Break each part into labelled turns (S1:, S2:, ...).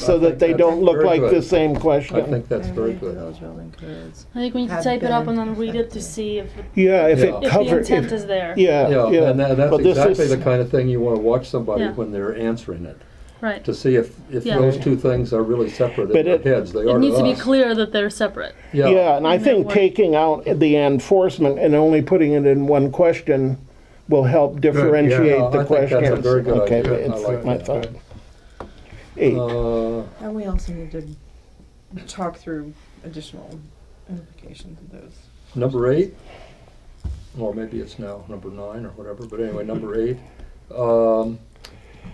S1: so that they don't look like the same
S2: I
S1: question.
S2: think that's very good.
S3: Those building codes.
S4: I think we need to
S3: Have
S4: type it up
S3: been
S4: and then read it to see if, it-
S1: Yeah, if
S2: Yeah.
S1: it
S4: if the
S1: covers,
S4: intent
S1: yeah,
S4: is there.
S2: Yeah,
S1: yeah.
S2: and tha- that's
S1: But this
S2: exactly
S1: is-
S2: the kind of thing you want to watch somebody
S4: Yeah.
S2: when they're answering it,
S4: Right.
S2: to see if, if
S4: Yeah.
S2: those two things are really separate
S1: But
S2: in their
S1: it-
S2: heads. They
S4: It
S2: are
S4: needs to be
S2: to us.
S4: clear that they're separate.
S1: Yeah, and I
S4: And that
S1: think
S4: one-
S1: taking out the enforcement and only putting it in one question will help
S2: Yeah, I
S1: differentiate the
S2: think that's a
S1: questions.
S2: very good
S1: Okay,
S2: idea. I
S1: it's
S2: like
S1: my
S2: that.
S1: thought. Eight,
S2: Uh,
S3: And we also need to talk through additional implications of those.
S2: Number eight, or maybe it's now number nine or whatever, but anyway, number eight. Um,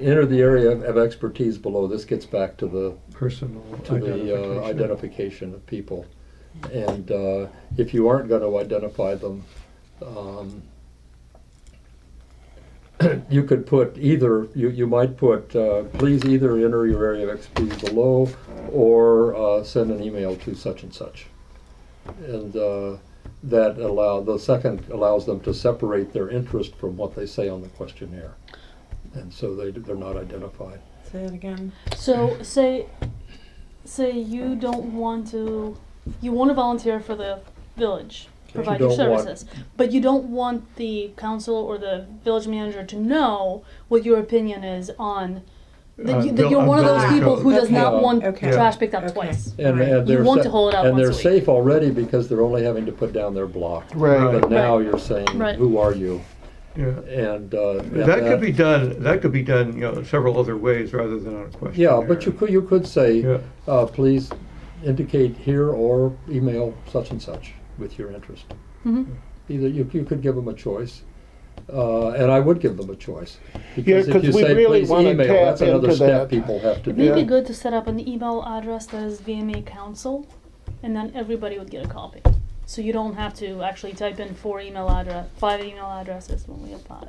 S2: enter the area of, of expertise below. This gets back to the
S5: personal
S2: to the uh,
S5: identification.
S2: identification of people. And uh, if you aren't going to identify them, um, you could put either, you, you might put, uh, please either enter your area of expertise below or uh, send an email to such and such. And uh, that allow, the second allows them to separate their interest from what they say on the questionnaire. And so they, they're not identified.
S3: Say it again.
S4: So say, say you don't want to, you want to volunteer for the village, provide your
S2: You don't want-
S4: services, but you don't want the council or the village manager to know what your opinion is on that,
S5: Uh,
S4: you, that
S5: bill-
S4: you're
S5: on
S4: one of those
S5: building
S4: people who
S3: code.
S4: does not
S2: Okay.
S4: want
S3: Okay.
S4: trash picked up
S3: Okay.
S4: twice.
S2: And,
S3: Right.
S2: and
S4: You
S2: they're
S4: want
S2: sa-
S4: to hold it out
S2: and
S4: once
S2: they're
S4: a week.
S2: safe already because they're only having to put down their block.
S1: right.
S2: But now
S4: Right.
S2: you're saying,
S4: Right.
S2: who are you?
S5: Yeah.
S2: And uh, and
S5: That could be done, that could be done, you know, several other ways rather than on a question.
S2: Yeah, but you could you could
S5: Yeah.
S2: say, uh, please indicate here or email such and such with your interest.
S4: Mhm.
S2: Either you you could give them a choice, uh, and I would give them a choice because if
S1: 'cause
S2: you
S1: we
S2: say
S1: really
S2: please
S1: wanna
S2: email,
S1: tap
S2: that's another
S1: into
S2: step
S1: that.
S2: people have to
S4: It may
S2: do.
S4: be
S1: Yeah.
S4: good to set up an email address that is VMA Council, and then everybody would get a copy. So you don't have to actually type in four email address, five email addresses when we apply.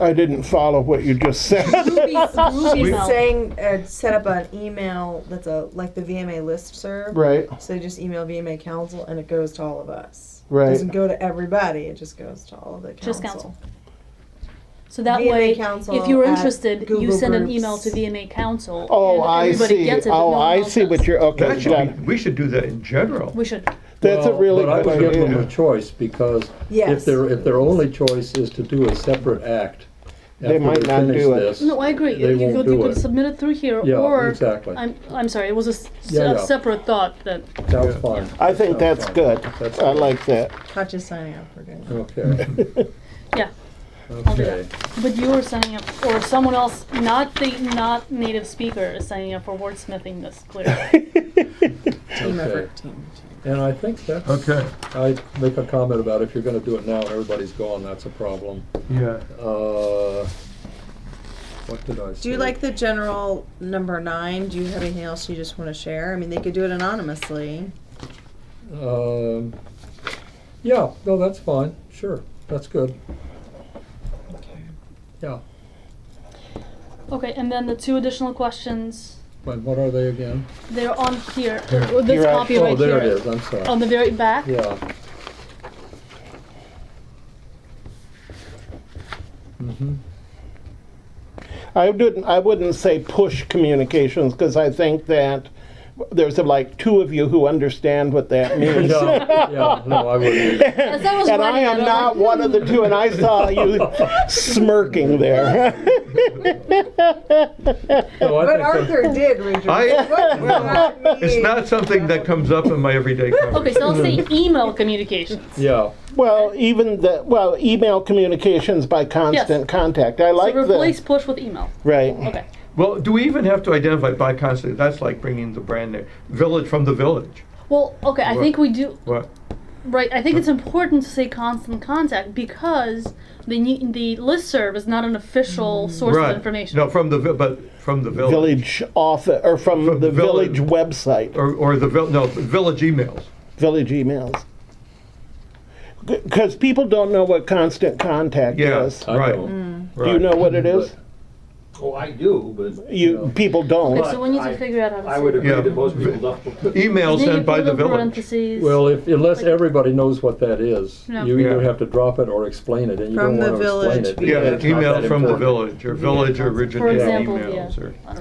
S1: I didn't follow what you just said.
S4: Group
S3: She's
S4: email.
S3: saying, uh, set up an email that's a, like the VMA listserv.
S1: Right,
S3: So you just email VMA council and it goes to all of us. It
S1: right.
S3: doesn't go to everybody, it just goes to all of the council.
S4: Just council. So that
S3: VMA
S4: way,
S3: Council
S4: if you're
S3: at
S4: interested, you
S3: Google
S4: send an
S3: Groups.
S4: email to VMA Council.
S1: Oh,
S4: and
S1: I
S4: everybody
S1: see.
S4: Gets it, but no
S1: Oh,
S4: one
S1: I
S4: else
S1: see
S4: does.
S1: what you're, okay,
S5: That
S1: got
S5: should
S1: it.
S5: be, we should do that in general.
S4: We should.
S1: That's a
S2: Well,
S1: really
S2: but I
S1: good
S2: would give them
S1: idea.
S2: a choice because if
S3: Yes.
S2: their if their only choice is to do a separate act,
S1: They
S2: after
S1: might
S2: they
S1: not
S2: finish
S1: do it.
S2: this,
S4: No, I agree.
S2: They
S4: you
S2: won't
S4: could,
S2: do
S4: you could
S2: it.
S4: submit it through here,
S2: Yeah,
S4: or
S2: exactly.
S4: I'm I'm sorry, it was a, s-
S2: Yeah,
S4: a
S2: yeah.
S4: separate thought that
S2: Sounds fine.
S1: I think
S2: Sounds
S1: that's
S2: fine.
S1: good.
S2: That's
S1: I
S2: good.
S1: like that.
S3: Not just signing up for doing
S2: Okay.
S4: yeah. I'll do
S2: Okay.
S4: that. But you are signing up, or someone else, not the not native speaker, is signing up for wordsmithing this clearly.
S3: team
S2: Okay.
S3: effort, team, team.
S2: And I think that's.
S5: Okay,
S2: I make a comment about if you're going to do it now and everybody's gone, that's a problem.
S5: yeah.
S2: Uh, what did I say?
S3: Do you like the general number nine? Do you have anything else you just want to share? I mean, they could do it anonymously.
S2: Um, yeah. No, that's fine. Sure. That's good.
S3: Okay.
S2: Yeah.
S4: okay, and then the two additional questions.
S2: But what are they again?
S4: They're on here. uh, This
S1: Here, I-
S4: copy
S2: oh,
S4: right
S2: there
S4: here.
S2: it is. I'm sorry.
S4: On the very back.
S2: Yeah. Mm-hmm.
S1: I didn't. I wouldn't say push communications because I think that there's like two of you who understand what that means.
S2: No, yeah, no, I wouldn't. either.
S4: As I was
S1: And I
S4: writing it,
S1: am
S4: was
S1: not
S4: like,
S1: one of the two, and I saw you smirking there.
S2: No, I
S3: But
S2: think that-
S3: Arthur did read your.
S5: I,
S3: What does that
S5: it's
S3: mean?
S5: not something that comes up in my everyday conversation.
S4: Okay, so I'll say email communications.
S2: Yeah.
S1: well, even the well, email communications by constant contact. I like
S4: so replace
S1: the
S4: push with email.
S1: right.
S4: Okay.
S5: Well, do we even have to identify by constant? That's like bringing the brand name, village from the village.
S4: Well, okay, I
S5: What?
S4: think we do.
S5: What?
S4: Right, I think it's important to say constant contact because the ne- the listserv is not an official source
S5: Right.
S4: of information.
S5: No, from the, vi- but from the village.
S1: Village office or from,
S5: From
S1: the
S5: the village.
S1: village website.
S5: Or, or the, vil- no, village emails.
S1: village emails. Because people don't know what constant contact
S5: Yeah,
S1: is.
S2: I
S3: Mm.
S5: right.
S2: know.
S1: Do you know what it is?
S6: Oh, I do, but
S1: You
S2: No.
S1: people don't.
S4: Okay, so we need to
S6: I-
S4: figure out how to
S6: I
S4: say
S6: would
S4: it.
S6: agree
S5: Yeah.
S6: that most people don't.
S5: Email
S4: Then you
S5: sent by
S4: put
S5: the
S4: little
S5: village.
S4: parentheses.
S2: Well, if, unless everybody knows what that is,
S4: No.
S2: you either
S5: Yeah.
S2: have to drop it or explain it, and you don't
S3: From the
S2: want to explain
S3: village.
S2: it.
S5: Yeah,
S2: because it's not
S5: email
S2: that
S5: from the
S2: important.
S5: village or village
S4: For
S5: originated
S4: example,
S5: emails
S4: yeah.
S5: or.